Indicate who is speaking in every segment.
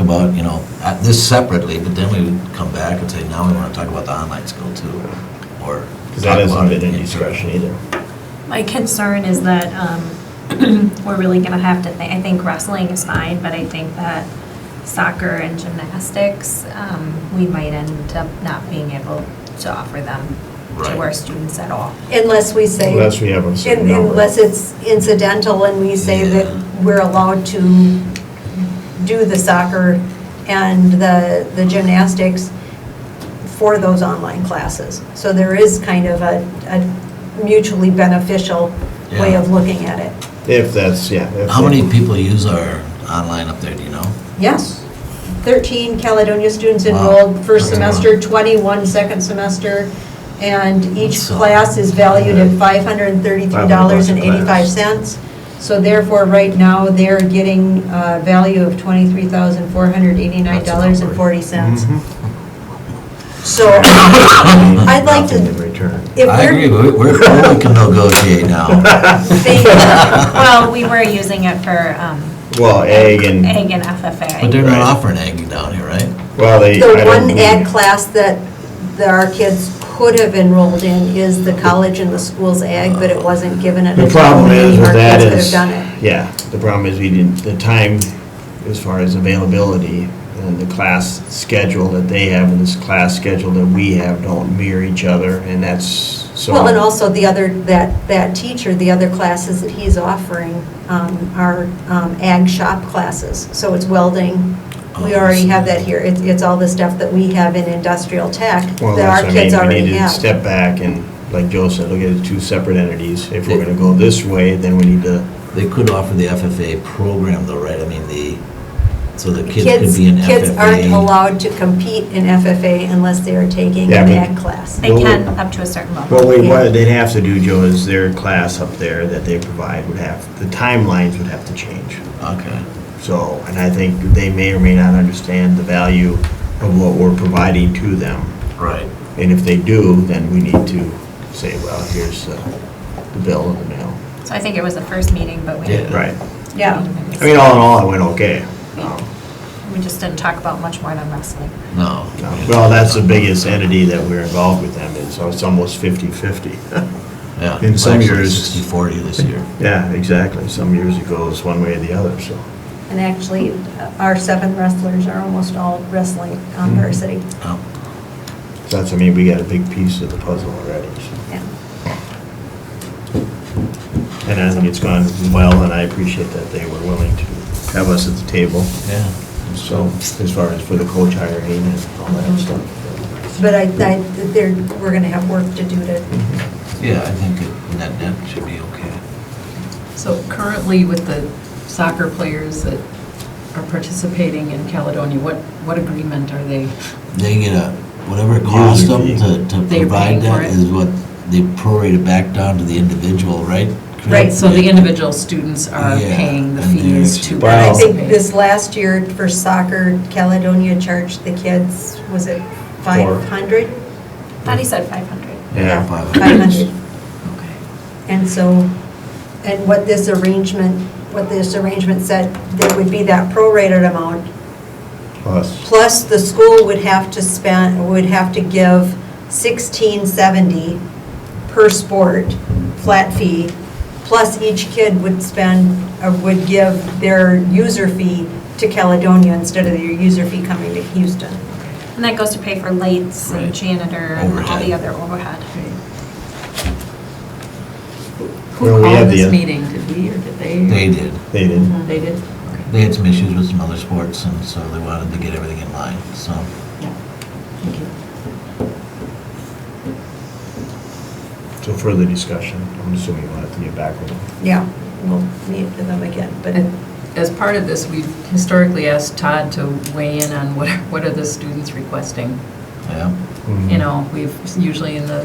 Speaker 1: about, you know, uh, this separately, but then we would come back and say, now we want to talk about the online skill too, or.
Speaker 2: Because that
Speaker 1: talk
Speaker 2: hasn't
Speaker 1: about it
Speaker 2: been in
Speaker 1: in-
Speaker 2: discussion either.
Speaker 3: My concern is that um, we're really going to have to, thi- I think wrestling is fine, but I think that soccer and gymnastics, um, we might end up not being able to offer them to our
Speaker 1: Right.
Speaker 3: students at all.
Speaker 4: Unless we say.
Speaker 2: Unless we have a certain
Speaker 4: un-
Speaker 2: number.
Speaker 4: Unless it's incidental and we say
Speaker 1: Yeah.
Speaker 4: that we're allowed to do the soccer and the, the gymnastics for those online classes. So there is kind of a, a mutually beneficial way of
Speaker 1: Yeah.
Speaker 4: looking at it.
Speaker 2: If that's, yeah. if
Speaker 1: How
Speaker 2: they-
Speaker 1: many people use our online up there, do you know?
Speaker 4: Yes. 13 Caledonia students
Speaker 1: Wow.
Speaker 4: enrolled first
Speaker 1: Okay.
Speaker 4: semester, 21 second semester, and each
Speaker 1: So-
Speaker 4: class is valued at
Speaker 2: $533.85.
Speaker 4: $533.85. So therefore, right now, they're getting a value of
Speaker 2: Mm-hmm.
Speaker 4: $23,489.40.
Speaker 1: Mm-hmm.
Speaker 4: So I'd like
Speaker 2: Nothing in
Speaker 4: to,
Speaker 2: return.
Speaker 4: if
Speaker 1: I agree,
Speaker 4: we're,
Speaker 1: we- we're, we can negotiate now.
Speaker 4: They-
Speaker 3: Well, we were using it for um,
Speaker 2: Well, egg
Speaker 3: egg
Speaker 2: and,
Speaker 3: and FFA.
Speaker 1: But they're not
Speaker 2: Right.
Speaker 1: offering egg down here, right?
Speaker 2: well, they.
Speaker 4: the
Speaker 2: I don't
Speaker 4: one
Speaker 2: believe-
Speaker 4: ag class that that our kids could have enrolled in is the college and the school's ag, but it wasn't given an.
Speaker 2: The problem
Speaker 4: opportunity.
Speaker 2: is with
Speaker 4: Our
Speaker 2: that
Speaker 4: kids could have
Speaker 2: is,
Speaker 4: done it.
Speaker 2: yeah, the problem is we didn't, the time as far as availability and the class schedule that they have and this class schedule that we have don't mirror each other and that's so.
Speaker 4: Well, and also the other, that, that teacher, the other classes that he's offering um, are um, ag shop classes. So it's welding. We
Speaker 1: Oh, I
Speaker 4: already
Speaker 1: see.
Speaker 4: have that here. It's, it's all the stuff that we have in industrial tech
Speaker 2: Well, that's-
Speaker 4: that our
Speaker 2: I
Speaker 4: kids
Speaker 2: mean,
Speaker 4: already
Speaker 2: We need to
Speaker 4: have.
Speaker 2: step back and, like Joe said, look at it as two separate entities. If we're gonna go this way, then we need to,
Speaker 1: They could offer the FFA program though, right? I mean, the, so the kids
Speaker 4: Kids,
Speaker 1: could be in FFA.
Speaker 4: kids aren't allowed to compete in FFA unless they are taking
Speaker 2: Yeah,
Speaker 4: an
Speaker 2: but-
Speaker 4: ag class.
Speaker 3: They can up to a certain level.
Speaker 2: well, wait,
Speaker 4: Yeah.
Speaker 2: what they'd have to do, Joe, is their class up there that they provide would have, the timelines would have to change.
Speaker 1: Okay.
Speaker 2: So, and I think they may or may not understand the value of what we're providing to them.
Speaker 1: Right.
Speaker 2: And if they do, then we need to say, well, here's uh, the bill in the mail.
Speaker 3: So I think it was the first meeting, but we
Speaker 1: Yeah.
Speaker 3: didn't.
Speaker 2: Right.
Speaker 4: Yeah.
Speaker 2: I mean, all in all, it went okay. Um,
Speaker 3: We just didn't talk about much more than wrestling.
Speaker 1: No.
Speaker 2: no. Well, that's the biggest entity that we're involved with them, and so it's almost 50/50.
Speaker 1: Yeah.
Speaker 2: In some
Speaker 1: Actually,
Speaker 2: years-
Speaker 1: Sixty, forty this year.
Speaker 2: Yeah, exactly. Some years it goes one way or the other, so.
Speaker 4: And actually, our seven wrestlers are almost all wrestling on
Speaker 2: Mm-hmm.
Speaker 4: varsity.
Speaker 1: Oh.
Speaker 2: That's, I mean, we got a big piece of the puzzle already, so.
Speaker 4: Yeah.
Speaker 2: And I think it's gone well, and I appreciate that they were willing to have us at the table.
Speaker 1: Yeah.
Speaker 2: So, as far as for the coach hiring and all that stuff.
Speaker 4: But I, I, there, we're gonna have work to do
Speaker 2: Mm-hmm.
Speaker 4: to,
Speaker 1: Yeah, I think it- net, net should be okay.
Speaker 5: So currently with the soccer players that are participating in Caledonia, what, what agreement are they?
Speaker 1: They get a, whatever it costs them
Speaker 2: User
Speaker 1: to, to
Speaker 5: They're
Speaker 1: provide
Speaker 5: paying
Speaker 1: that
Speaker 5: for it?
Speaker 1: is what they prorate it back down to the individual, right? Chris?
Speaker 4: Right,
Speaker 5: So the individual students are
Speaker 1: Yeah,
Speaker 5: paying the
Speaker 1: and
Speaker 5: fees
Speaker 1: there's-
Speaker 5: to
Speaker 2: And I
Speaker 4: I
Speaker 2: think
Speaker 4: think
Speaker 5: participate.
Speaker 4: this last year for soccer, Caledonia charged the kids, was it
Speaker 2: Four.
Speaker 4: five hundred?
Speaker 3: Thought he said 500.
Speaker 2: Yeah.
Speaker 4: Five hundred.
Speaker 5: Okay.
Speaker 4: And so, and what this arrangement, what this arrangement said, there would be that prorated amount,
Speaker 2: Plus,
Speaker 4: plus the school would have to spend, would have to give sixteen seventy per sport, flat fee, plus each kid would spend, or would give their user fee to Caledonia instead of their user fee coming to Houston.
Speaker 3: And that goes to pay for lights
Speaker 1: Right.
Speaker 3: and janitor and all
Speaker 1: Overhead.
Speaker 3: the other overhead.
Speaker 2: Well,
Speaker 5: Who
Speaker 2: we have
Speaker 5: called
Speaker 2: the-
Speaker 5: this meeting? Did we or did they? Uh-huh.
Speaker 1: They did.
Speaker 2: they did.
Speaker 5: They did?
Speaker 1: They had some issues with some other sports and so they wanted to get everything in line, so.
Speaker 5: Yeah. Thank you. Mm-hmm.
Speaker 2: So further discussion, I'm assuming we'll have to get back with them.
Speaker 4: Yeah, we'll meet with them again, but
Speaker 5: And as part of this, we've historically asked Todd to weigh in on what, what are the students requesting?
Speaker 1: Yeah.
Speaker 5: you know, we've usually in the,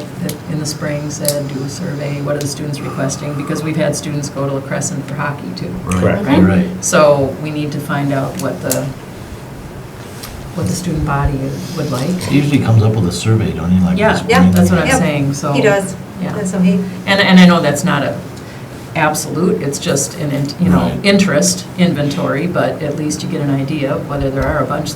Speaker 5: in the spring said, do a survey, what are the students requesting? Because we've had students go to La Crescent for hockey too.
Speaker 2: Correct.
Speaker 1: You're right.
Speaker 5: So we need to find out what the, what the student body would like.
Speaker 1: He usually comes up with a survey, don't he, like?
Speaker 5: Yeah,
Speaker 1: this
Speaker 4: yeah,
Speaker 1: morning?
Speaker 5: that's what I'm
Speaker 4: Yep,
Speaker 5: saying, so.
Speaker 4: he does.
Speaker 5: Yeah.
Speaker 4: So he,
Speaker 5: And, and I know that's not a, absolute, it's just an, int- you know,
Speaker 1: Right.
Speaker 5: interest inventory, but at least you get an idea of whether there are a bunch